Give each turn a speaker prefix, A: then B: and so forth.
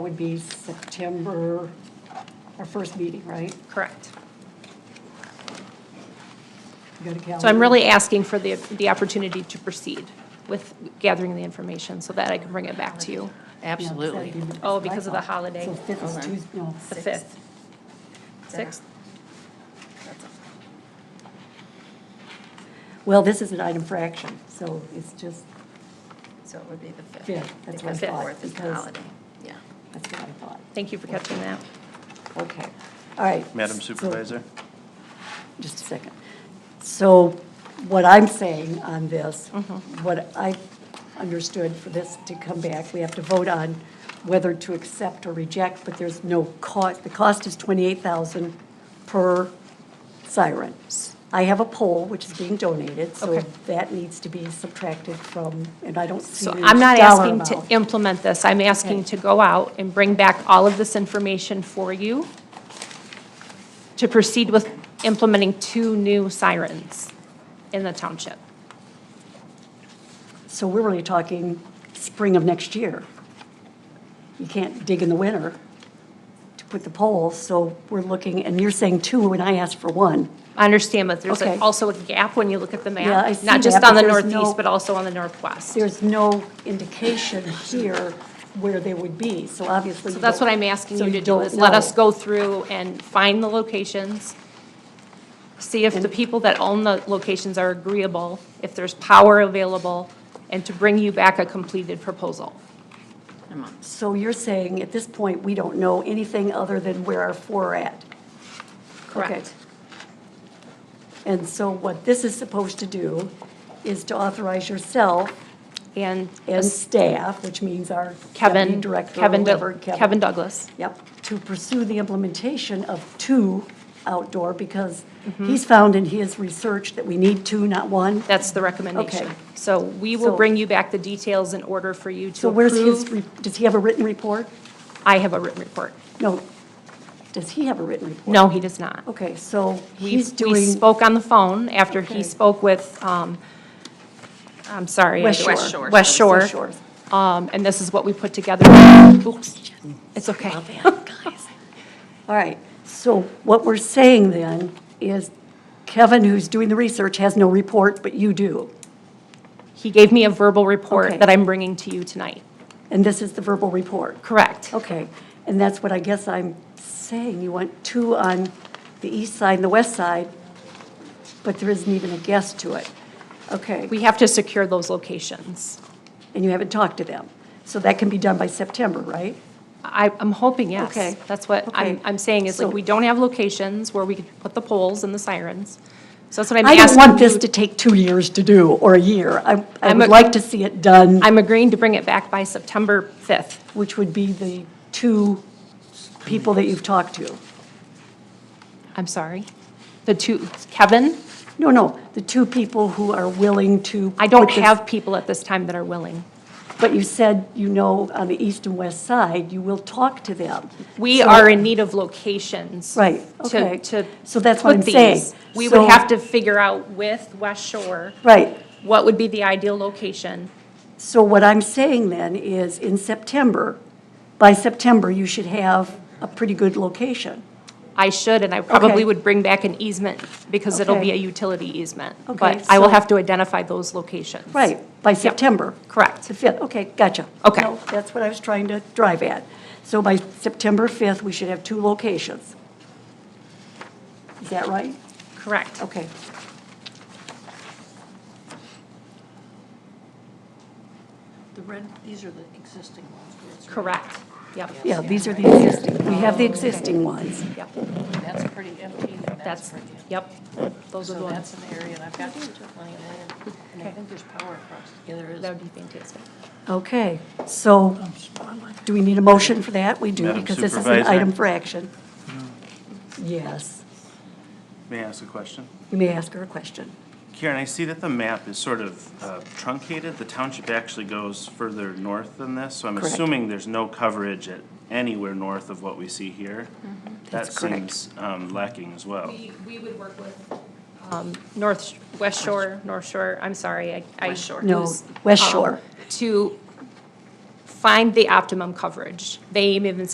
A: would be September, our first meeting, right?
B: Correct.
A: You got a calendar?
B: So I'm really asking for the, the opportunity to proceed with gathering the information so that I can bring it back to you.
C: Absolutely.
A: Yeah, Saturday,
B: Oh, because of the holiday.
A: So fifth is
C: Okay.
A: Tuesday, no.
B: The 5th. 6th?
A: Well, this is an item for action, so it's just,
C: So it would be the 5th.
A: Fifth, that's what I
C: Because
A: thought,
C: fourth is the
A: because-
C: holiday, yeah.
A: that's what I thought.
B: Thank you for catching that.
A: Okay, all right.
D: Madam
A: So-
D: Supervisor?
A: Just a second. So what I'm saying on this,
B: Mm-hmm.
A: what I understood for this to come back, we have to vote on whether to accept or reject, but there's no cost, the cost is twenty-eight thousand per siren. I have a pole which is being donated, so
B: Okay.
A: that needs to be subtracted from, and I don't see
B: So
A: the dollar
B: I'm not asking to
A: amount.
B: implement this. I'm asking
A: Okay.
B: to go out and bring back all of this information for you to proceed with implementing two new sirens in the township.
A: So we're really talking spring of next year. You can't dig in the winter to put the poles, so we're looking, and you're saying two, and I asked for one.
B: I understand, but there's a-
A: Okay.
B: also a gap when you look at the map.
A: Yeah, I see
B: Not just
A: that,
B: on the
A: but there's no-
B: northeast, but also on the northwest.
A: There's no indication here where they would be, so obviously.
B: So that's what I'm asking you to do, is let us go through and find the locations, see if the people that own the locations are agreeable, if there's power available, and to bring you back a completed proposal.
C: A month.
A: So you're saying at this point, we don't know anything other than where our four are at?
B: Correct.
A: Okay. And so what this is supposed to do is to authorize yourself
B: And
A: and staff, which means our deputy
B: Kevin,
A: director,
B: Kevin, Doug-
A: whoever,
B: Kevin Douglas.
A: Yep, to pursue the implementation of two outdoor, because
B: Mm-hmm.
A: he's found in his research that we need two, not one.
B: That's the recommendation.
A: Okay.
B: So we will
A: So-
B: bring you back the details in order for you to
A: So where's his,
B: approve.
A: re- does he have a written report?
B: I have a written report.
A: No, does he have a written report?
B: No, he does not.
A: Okay, so
B: We-
A: he's
B: We
A: doing,
B: spoke on the phone after
A: Okay.
B: he spoke with, um, I'm sorry. I-
A: West Shore.
C: West Shore.
B: West
A: West
B: Shore.
A: Shore.
B: Um, And this is what we put together. Oops, it's okay.
A: all right, so what we're saying then is Kevin, who's doing the research, has no report, but you do.
B: He gave me a verbal
A: Okay.
B: report that I'm bringing to you tonight.
A: And this is the verbal report.
B: Correct.
A: Okay, and that's what I guess I'm saying, you want two on the east side and the west side, but there isn't even a guess to it. Okay,
B: We have to secure those locations.
A: and you haven't talked to them, so that can be done by September, right?
B: I, I'm hoping, yes.
A: Okay.
B: That's what I'm,
A: Okay.
B: I'm saying is like,
A: So-
B: we don't have locations where we could put the poles and the sirens. So that's what I'm
A: I
B: asking.
A: don't want this
B: you-
A: to take two years to do, or a year. I, I
B: I'm
A: would
B: a-
A: like to see it done,
B: I'm agreeing to bring it back by September 5th.
A: which would be the two people that you've talked to.
B: I'm sorry. The two, Kevin,
A: No, no, the two people who are willing to.
B: I don't
A: put this-
B: have people at this time that are willing.
A: But you said, you know, on the east and west side, you will talk to them.
B: We
A: So-
B: are in need of locations.
A: Right,
B: to-
A: okay.
B: To.
A: So that's what
B: put
A: I'm saying.
B: these. We would
A: So-
B: have to figure out with West Shore.
A: Right.
B: What would be the ideal location?
A: So what I'm saying then is in September, by September, you should have a pretty good location.
B: I should, and I probably
A: Okay.
B: would bring back an easement because it'll be
A: Okay.
B: a utility easement.
A: Okay,
B: But I will
A: so-
B: have to identify those locations.
A: Right, by September.
B: correct.
A: The 5th, okay, gotcha.
B: Okay.
A: No, That's what I was trying to drive at. So by September 5th, we should have two locations. Is that right?
B: Correct.
A: Okay.
E: The red, these are the existing ones. where it's red.
B: Correct. Yep.
A: Yeah, these are the existing, we have the existing ones.
B: Yep.
E: That's pretty empty, and
B: That's,
E: that's pretty empty.
B: yep. Those are the
E: So that's
B: ones.
E: an area, and I've got plenty of land, and I
B: Okay.
E: think there's power across. Yeah, there is.
B: That would be fantastic.
A: Okay, so do we need a motion for that? We do,
D: Madam
A: because this is an
D: Supervisor?
A: item for action. Yes,
D: May I ask a question?
A: you may ask her a question.
D: Karen, I see that the map is sort of uh, truncated. The township actually goes further north than this, so I'm
A: Correct.
D: assuming there's no coverage at anywhere north of what we see here. That
A: Mm-hmm. That's correct.
D: seems um, lacking as well.
B: We, we would work with um, North, West Shore, North Shore, I'm sorry, I. um, I-
E: West Shore.
A: No,
B: who's,
A: West
B: um,
A: Shore.
B: To find the optimum coverage. They even